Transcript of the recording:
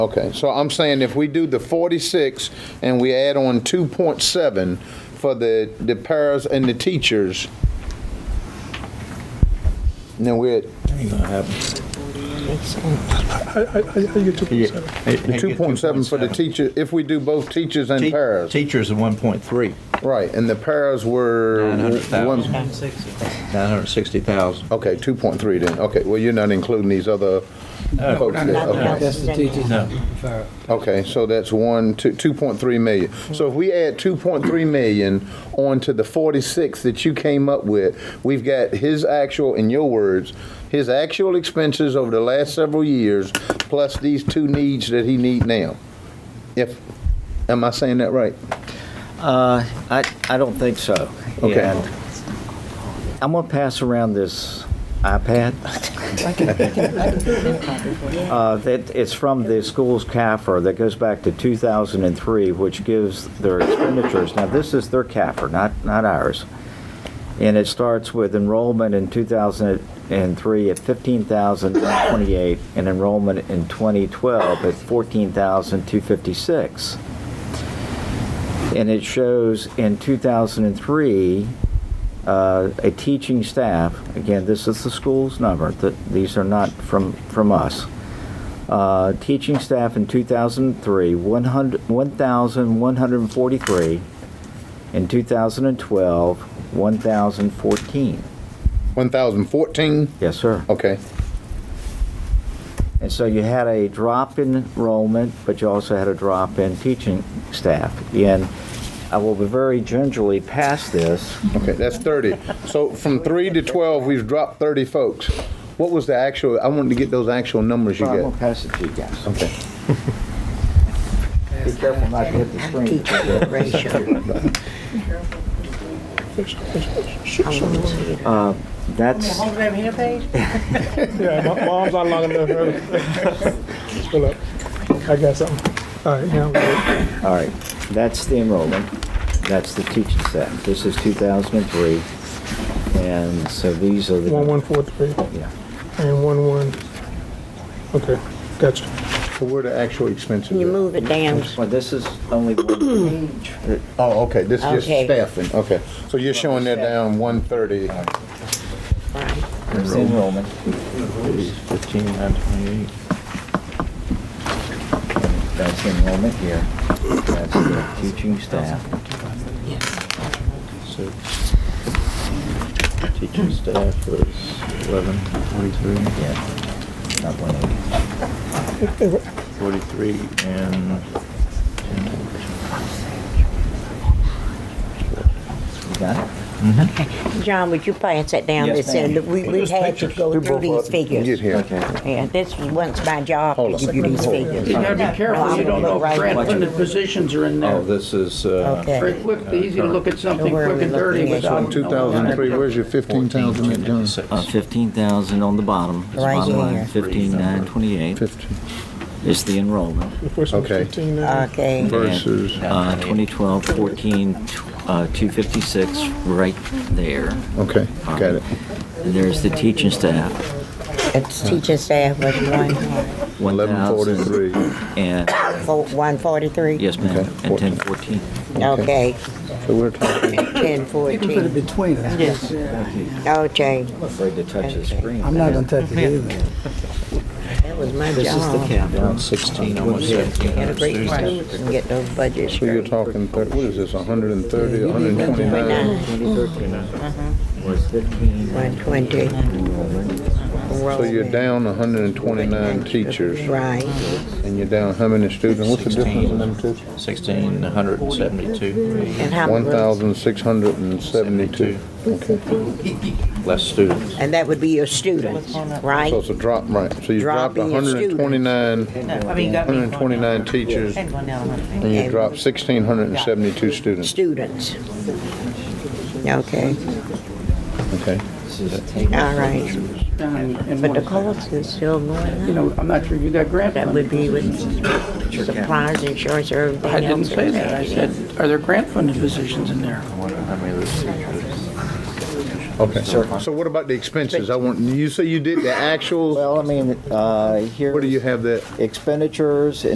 Okay, so I'm saying if we do the 46 and we add on 2.7 for the, the paras and the teachers, then we're at Ain't gonna happen. I, I, I you get two point seven. the 2.7 for the teacher, if we do both teachers and paras. Teachers are 1.3, Right, and the paras were. 900,000. one- 960,000. Okay, 2.3 then, okay, well, you're not including these other folks there, okay. That's the teachers. No. Okay, so that's one, two, two point three million. So if we add two point three million onto the forty-six that you came up with, we've got his actual, in your words, his actual expenses over the last several years, plus these two needs that he need now. If, am I saying that right? Uh, I, I don't think so. Okay. And I'm gonna pass around this iPad. Uh, that, it's from the school's CAFR that goes back to 2003, which gives their expenditures. Now, this is their CAFR, not, not ours. And it starts with enrollment in 2003 at 15,128 and enrollment in 2012 at 14,256 and it shows in 2003 uh, a teaching staff again this is the school's number th- these are not from from us uh, teaching staff in 2003 100 1143 in 2012 1014 One thousand fourteen? yes sir Okay, And so you had a drop in enrollment, but you also had a drop in teaching staff. And I will be very gingerly pass this. okay, that's thirty. So from three to twelve, we've dropped thirty folks. What was the actual, I wanted to get those actual numbers you Well, I'm got. gonna pass it to you guys. Okay. Be careful not to hit the screen. Teacher ratio. Uh, That's, Yeah, my, my arms not long enough. really. Pull up. I got something. All right, now. I'm good. all right, that's the enrollment, that's the teaching staff. This is 2003, and so these are the. One one four three Yeah. and one one. Okay, gotcha. So where the actual expenses You at? move it down. Well, this is only one page. Oh, okay, this is just Okay. staffing, okay. So you're showing that down one thirty. Right. It's the enrollment. 15,928. That's the enrollment here. That's the teaching staff. So teaching staff was 11, 43, Yeah, not 180. Anyway, 43, and You got it? John, would you pass that down? Yes, It's in- ma'am. We, we had to go through these Get figures. here. Okay. Yeah, this was once my job Hold to on. give you these figures. You gotta be careful, you don't know Fred when the positions are in Oh, there. this is, uh, Okay. Very quick, the easy to look at something quick and dirty That's without. On two thousand and three, where's your fifteen thousand at, John? 56. Uh, 15,000 on the bottom. It's Right bottom line, here. 15,928 Fifteen is the enrollment. The first one's Okay. fifteen now. Okay, versus, Uh, 2012, 14, tw- uh, 256, right there. okay, got it. And there's the teaching staff. it's teaching staff was one, Eleven 1,000 forty-three. And, four- 143? yes, ma'am, Okay, and 1014. Okay, So we're talking, 1014. between us. Yes. Okay, I'm afraid to touch the screen. I'm not gonna touch it either. that was my job. Down 16, almost 17. Had a great crew and get those budgets so you're straight. talking, thir- what is this, hundred and thirty, hundred and twenty-nine? 2013 was 15. 120, So you're down hundred and twenty-nine teachers, right. and you're down how many students? What's the difference in them two? 1,672 And how One many? thousand six hundred and seventy-two. less students. And that would be your students, right? So it's a drop, right, so you dropped Dropping your hundred and twenty-nine, I mean, you got me hundred and going down. twenty-nine teachers, And one down, I think. and you dropped sixteen hundred and seventy-two students, Students. Okay, okay? all right. But the cost is still You going up. know, I'm not sure you got grant That funding. would be with supplies, insurance, or everything I else. didn't say that, I said, are there grant funded positions in there? Okay, so what about the expenses? I want, you say you did the actuals, Well, I mean, uh, where do here, you have that? expenditures